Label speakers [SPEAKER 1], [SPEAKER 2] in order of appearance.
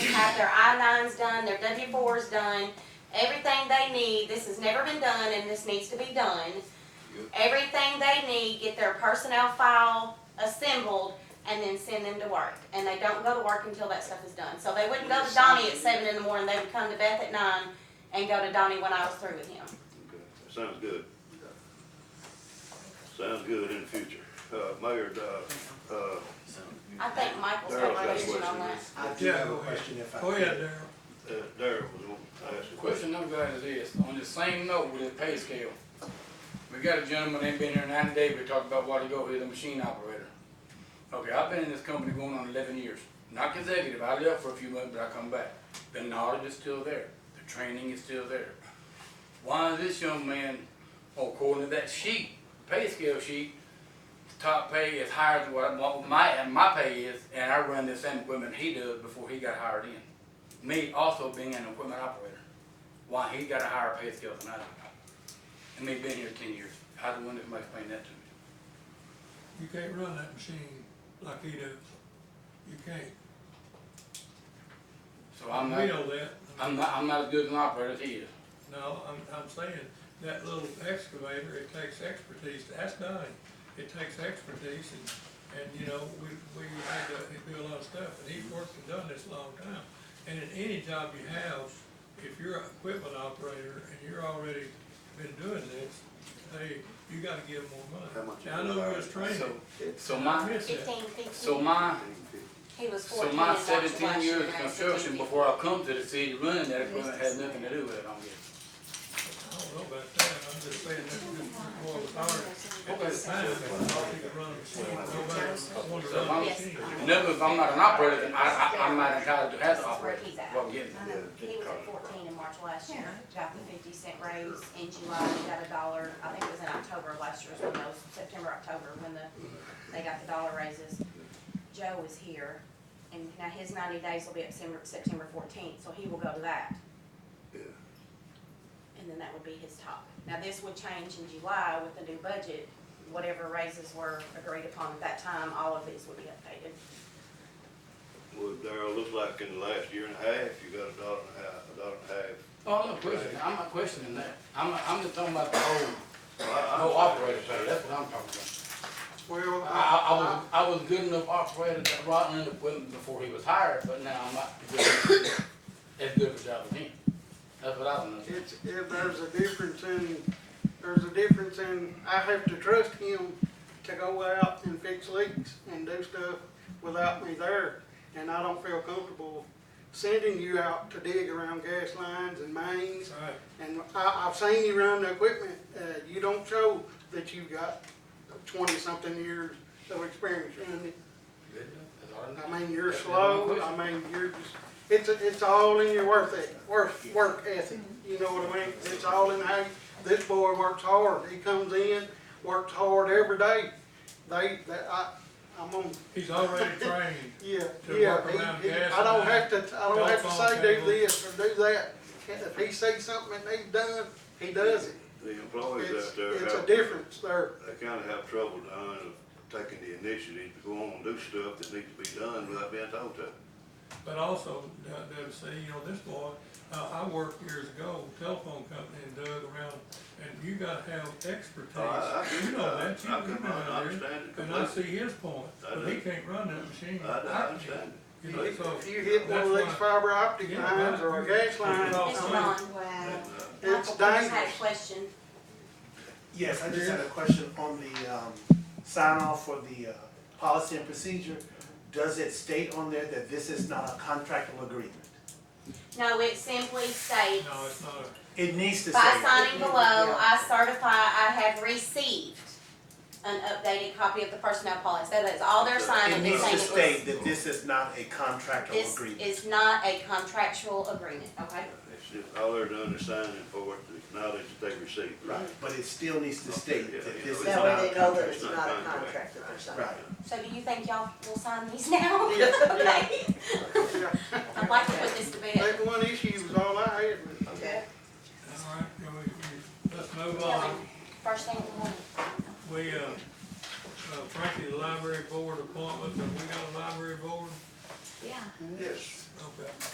[SPEAKER 1] their I nines done, their W fours done, everything they need, this has never been done and this needs to be done.
[SPEAKER 2] Yep.
[SPEAKER 1] Everything they need, get their personnel file assembled and then send them to work. And they don't go to work until that stuff is done. So they wouldn't go to Donnie at seven in the morning, they would come to Beth at nine and go to Donnie when I was through with him.
[SPEAKER 2] Okay, Sounds good. Sounds good in the future. Uh, Mayor, uh, uh,
[SPEAKER 1] I think Michael's
[SPEAKER 2] Daryl's
[SPEAKER 1] got a
[SPEAKER 2] got a
[SPEAKER 1] question on that.
[SPEAKER 2] question.
[SPEAKER 3] I do have a question if I
[SPEAKER 4] Go
[SPEAKER 3] could.
[SPEAKER 4] ahead, Darryl.
[SPEAKER 2] uh, Darryl was going to ask a question.
[SPEAKER 5] Question I'm glad is this, on the same note with the pay scale, we got a gentleman, ain't been here ninety days, we talked about while ago, he's a machine operator. Okay, I've been in this company going on eleven years, not consecutive, I left for a few months, but I come back. The knowledge is still there, the training is still there. Why is this young man, oh, according to that sheet, pay scale sheet, top pay is higher than what what my, my pay is, and I run the same equipment he does before he got hired in. Me also being an equipment operator why he got a higher pay scale than I do. And they've been here ten years. I don't wonder if somebody explained that to me.
[SPEAKER 4] You can't run that machine like he does. You can't.
[SPEAKER 5] So I'm
[SPEAKER 4] We
[SPEAKER 5] not,
[SPEAKER 4] know that.
[SPEAKER 5] I'm not, I'm not as good an operator as he is.
[SPEAKER 4] No, I'm, I'm saying that little excavator, it takes expertise. That's Donnie. It takes expertise and, and you know, we, we had to do a lot of stuff and he's worked and done this a long time. And in any job you have, if you're an equipment operator and you're already been doing this, they, you gotta give them more money.
[SPEAKER 2] How much
[SPEAKER 4] Now, I know we're just training.
[SPEAKER 5] So,
[SPEAKER 2] It's
[SPEAKER 5] so my,
[SPEAKER 4] Yes, sir.
[SPEAKER 1] Fifteen, fifteen.
[SPEAKER 5] so my,
[SPEAKER 1] He was
[SPEAKER 5] so
[SPEAKER 1] fourteen.
[SPEAKER 5] my
[SPEAKER 1] and watched
[SPEAKER 5] seventeen
[SPEAKER 1] Washington
[SPEAKER 5] years of
[SPEAKER 1] as a
[SPEAKER 5] construction
[SPEAKER 1] teenager.
[SPEAKER 5] before I come to the city running that equipment had nothing to do with it, I'm guessing.
[SPEAKER 4] I don't know about that, I'm just saying that we're more retired at this time, I don't think it runs, nobody wanted to run a machine.
[SPEAKER 5] In other words, if I'm not an operator, then I, I, I'm not entitled to have to operate.
[SPEAKER 1] He's out.
[SPEAKER 5] Well, getting
[SPEAKER 1] I know, He was at fourteen in March last year, got the fifty cent raise in July, he got a dollar, I think it was in October of last year, when those, September, October, when the, they got the dollar raises. Joe is here, and now his ninety days will be up September, September fourteenth, so he will go to that.
[SPEAKER 2] Yeah.
[SPEAKER 1] And then that would be his top. Now, this would change in July with the new budget, whatever raises were agreed upon at that time, all of these would be updated.
[SPEAKER 2] Well, Darryl, looks like in the last year and a half, you got a dollar and a half, a dollar and a half.
[SPEAKER 5] Oh, no question, I'm not questioning that. I'm, I'm just talking about the whole,
[SPEAKER 2] Well, I- I
[SPEAKER 5] no operator pay,
[SPEAKER 2] understand.
[SPEAKER 5] that's what I'm talking about.
[SPEAKER 3] Well,
[SPEAKER 5] I, I- I was, I was good enough operator that brought in equipment before he was hired, but now I'm not good enough as good of a job as him. That's what I don't know.
[SPEAKER 3] It's, if there's a difference in, there's a difference in, I have to trust him to go out and fix leaks and do stuff without me there. And I don't feel comfortable sending you out to dig around gas lines and mains.
[SPEAKER 4] Right,
[SPEAKER 3] And I, I've seen you run the equipment, uh, you don't show that you've got twenty-something years of experience running it.
[SPEAKER 5] Good enough, that's all I know.
[SPEAKER 3] I mean, you're
[SPEAKER 5] That's
[SPEAKER 3] slow,
[SPEAKER 5] my
[SPEAKER 3] I mean, you're just, it's, it's all in your worth ethic, work, work ethic, you know what I mean? It's all in how, this boy works hard, he comes in, works hard every day, they, that, I, I'm on,
[SPEAKER 4] he's already trained,
[SPEAKER 3] yeah,
[SPEAKER 4] To
[SPEAKER 3] yeah.
[SPEAKER 4] work around
[SPEAKER 3] he- he-
[SPEAKER 4] gas
[SPEAKER 3] I don't
[SPEAKER 4] and
[SPEAKER 3] have to, I don't have to
[SPEAKER 4] telephone
[SPEAKER 3] say do
[SPEAKER 4] cable.
[SPEAKER 3] this or do that, if he sees something that needs done, he does it.
[SPEAKER 2] The employees
[SPEAKER 3] It's,
[SPEAKER 2] out there
[SPEAKER 3] it's a
[SPEAKER 2] have,
[SPEAKER 3] difference there,
[SPEAKER 2] they kind of have trouble down of taking the initiative to go on and do stuff that needs to be done without being told to.
[SPEAKER 4] but also, Deb said, you know, this boy, uh, I worked years ago, telephone company, and dug around, and you gotta have
[SPEAKER 2] Oh, I- Uh, I-
[SPEAKER 4] expertise, you know that, you
[SPEAKER 2] I- I can
[SPEAKER 4] you know that.
[SPEAKER 2] understand it
[SPEAKER 4] And I see
[SPEAKER 2] completely.
[SPEAKER 4] his point,
[SPEAKER 2] I
[SPEAKER 4] but he
[SPEAKER 2] do.
[SPEAKER 4] can't run that machine.
[SPEAKER 2] I, I understand.
[SPEAKER 4] You know, so
[SPEAKER 3] if you hit one
[SPEAKER 4] that's
[SPEAKER 3] of these
[SPEAKER 4] why-
[SPEAKER 3] fiber optic
[SPEAKER 4] Yeah, right.
[SPEAKER 3] lines or a gas line,
[SPEAKER 4] It's
[SPEAKER 1] Mr.
[SPEAKER 4] Oh,
[SPEAKER 3] I mean,
[SPEAKER 4] not-
[SPEAKER 1] Ron,
[SPEAKER 6] Wow.
[SPEAKER 2] uh,
[SPEAKER 1] Michael
[SPEAKER 3] it's
[SPEAKER 1] Pierce had a
[SPEAKER 3] dangerous.
[SPEAKER 1] question.
[SPEAKER 6] Yes, I just had a question on the, um, sign off for the, uh, policy and procedure. Does it state on there that this is not a contractual agreement?
[SPEAKER 1] No, it simply states,
[SPEAKER 4] No, it's not a,
[SPEAKER 6] It needs to say.
[SPEAKER 1] by
[SPEAKER 6] that.
[SPEAKER 1] signing below, I certify I have received an updated copy of the personnel policy. That is all they're
[SPEAKER 6] It
[SPEAKER 1] signing, they're
[SPEAKER 6] needs to
[SPEAKER 1] saying
[SPEAKER 6] state that this is not a contractual
[SPEAKER 1] this
[SPEAKER 6] agreement.
[SPEAKER 1] is not a contractual agreement, okay?
[SPEAKER 2] It's just, all they're doing is signing for it, the knowledge that they received.
[SPEAKER 6] Right, but it still needs to state that this is
[SPEAKER 2] Yeah,
[SPEAKER 7] That
[SPEAKER 6] not
[SPEAKER 7] way
[SPEAKER 6] a
[SPEAKER 7] they know that
[SPEAKER 6] contract.
[SPEAKER 7] it's not a contract if there's something.
[SPEAKER 6] Right.
[SPEAKER 1] So do you think y'all will sign these now?
[SPEAKER 3] Yeah, yeah.
[SPEAKER 1] Okay. I'd like
[SPEAKER 4] uh,